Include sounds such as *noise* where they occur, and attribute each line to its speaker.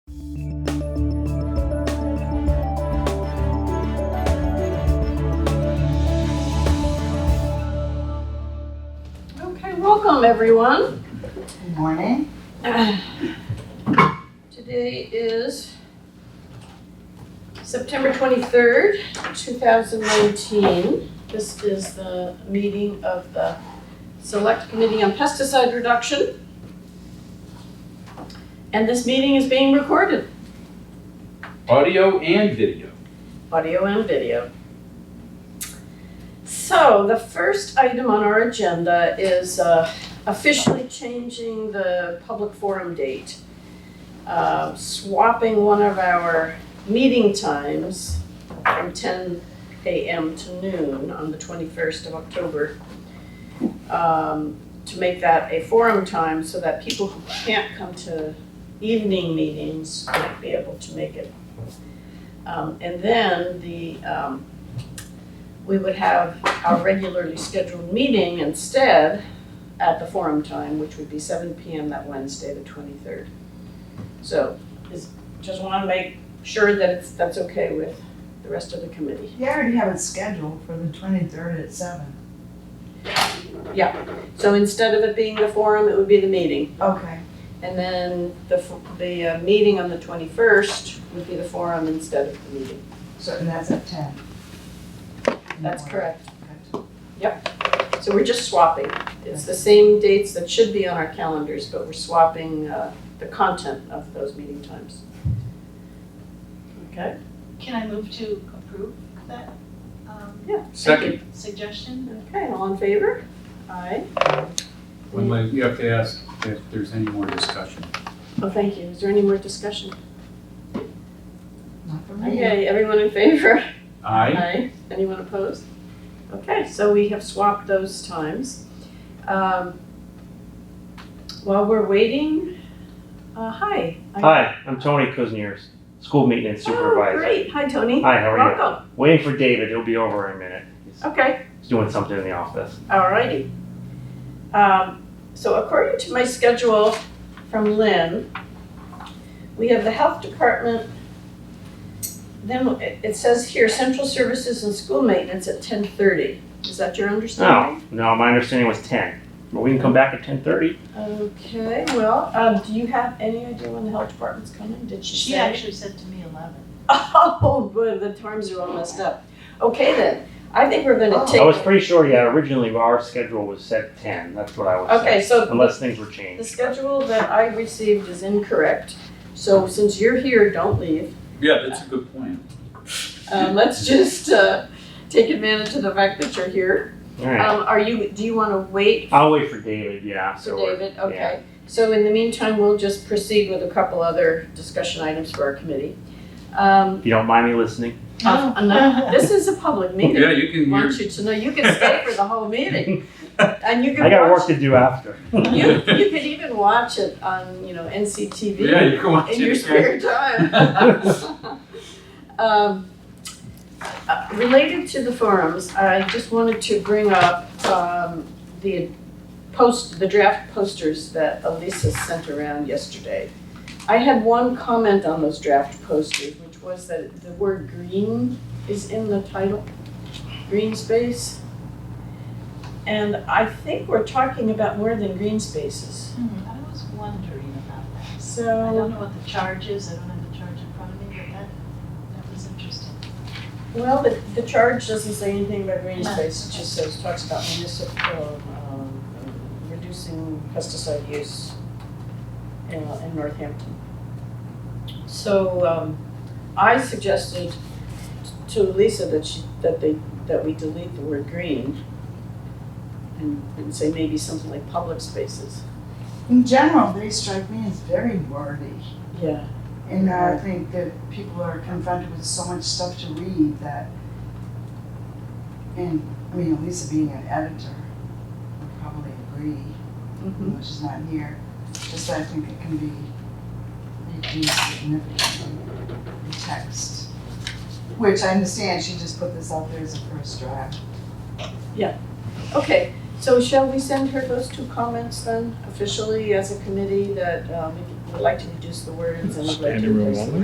Speaker 1: Welcome, everyone.
Speaker 2: Good morning.
Speaker 1: Today is September 23rd, 2019. This is the meeting of the Select Committee on Pesticide Reduction. And this meeting is being recorded,
Speaker 3: Audio and video.
Speaker 1: audio and video. So the first item on our agenda is uh, officially changing the public forum date. uh, swapping one of our meeting times from ten AM to noon on the twenty-first of October um, to make that a forum time so that people who can't come to evening meetings might be able to make it. Um, And then the, um, we would have our regularly scheduled meeting instead at the forum time, which would be seven PM that Wednesday, the twenty-third. So, is, just wanna make sure that it's, that's okay with the rest of the committee.
Speaker 2: You already have it scheduled for the twenty-third at seven.
Speaker 1: So instead of it being the forum, it would be the meeting.
Speaker 2: Okay.
Speaker 1: And then the, f- the, uh, meeting on the twenty-first would be the forum instead of the meeting.
Speaker 2: So, and that's at ten.
Speaker 1: That's correct.
Speaker 2: correct.
Speaker 1: So we're just swapping. It's the same dates that should be on our calendars, but we're swapping, uh, the content of those meeting times. Okay?
Speaker 4: Can I move to approve that um,
Speaker 3: Second,
Speaker 4: suggestion?
Speaker 1: Okay, all in favor? Aye.
Speaker 5: One way, you have to ask if there's any more discussion.
Speaker 1: Oh, thank you. Is there any more discussion?
Speaker 2: Not for me.
Speaker 1: Okay, everyone in favor?
Speaker 5: Aye,
Speaker 1: Aye. Anyone opposed? Okay, so we have swapped those times. Um, While we're waiting, uh, hi. I-
Speaker 6: Hi, I'm Tony Kuzniers, school maintenance
Speaker 1: Oh,
Speaker 6: supervisor.
Speaker 1: great. Hi, Tony.
Speaker 6: Hi, how are
Speaker 1: Welcome.
Speaker 6: you? Waiting for David, he'll be over in a minute. He's-
Speaker 1: Okay,
Speaker 6: He's doing something in the office.
Speaker 1: all righty. Um, So according to my schedule from Lynn, we have the health department. Then it- it says here, central services and school maintenance at ten thirty. Is that your understanding?
Speaker 6: No, no, my understanding was ten, but we can come back at ten thirty.
Speaker 1: Okay, well, um, do you have any idea when the health department's coming? Did she say?
Speaker 4: She actually said to me 11.
Speaker 1: *laughs* Oh, boy, the times are all messed up. Okay then, I think we're gonna
Speaker 2: Oh.
Speaker 1: take.
Speaker 6: I was pretty sure, yeah, originally our schedule was set ten, that's what I was
Speaker 1: Okay,
Speaker 6: saying,
Speaker 1: so
Speaker 6: unless things were
Speaker 1: the
Speaker 6: changed.
Speaker 1: schedule that I received is incorrect. So since you're here, don't leave.
Speaker 5: yeah, that's a good plan.
Speaker 1: Um, *laughs* let's just, uh, take advantage of the fact that you're here.
Speaker 6: Alright,
Speaker 1: Um, are you, do you wanna wait
Speaker 6: I'll wait for David, yeah,
Speaker 1: for
Speaker 6: so. we're-
Speaker 1: David? Okay. So in the meantime, we'll just proceed with a couple other discussion items for our committee. Um,
Speaker 6: If you don't mind me listening. Oh.
Speaker 1: uh,
Speaker 6: *laughs*
Speaker 1: and this is a public meeting.
Speaker 5: Yeah, you can,
Speaker 1: want
Speaker 5: you're,
Speaker 1: you to know, you can stay for the whole
Speaker 5: *laughs*
Speaker 1: meeting. And you
Speaker 6: I
Speaker 1: can
Speaker 6: got work
Speaker 1: watch,
Speaker 6: to do after.
Speaker 1: you, you could even watch it on, you know, NCTV
Speaker 5: yeah, you
Speaker 1: *laughs*
Speaker 5: can watch
Speaker 1: in your
Speaker 5: it
Speaker 1: spare
Speaker 5: again.
Speaker 1: time.
Speaker 5: *laughs*
Speaker 1: *laughs* Um, uh, Related to the forums, I just wanted to bring up um, the post, the draft posters that Elisa sent around yesterday. I had one comment on those draft posters, which was that the word green is in the title, green space. And I think we're talking about more than green spaces,
Speaker 4: I was wondering about that.
Speaker 1: so.
Speaker 4: I don't know what the charge is, I don't have the charge in front of me, but that, that was interesting.
Speaker 1: Well, the, the charge doesn't say anything about green space, it just says, talks about municipal, um, reducing pesticide use in, in Northampton. So, um, I suggested to Lisa that she, that they, that we delete the word green and, and say maybe something like public spaces.
Speaker 2: In general, they strike me as very wordy.
Speaker 1: Yeah.
Speaker 2: And I think that people are confronted with so much stuff to read that, and, I mean, Elisa being an editor would probably agree,
Speaker 1: Mm-hmm.
Speaker 2: even though she's not here, just I think it can be reduced significantly, the text. Which I understand, she just put this out there as a first draft.
Speaker 1: Okay, so shall we send her those two comments then officially as a committee that um, we would like to reduce the words and. Standing room only?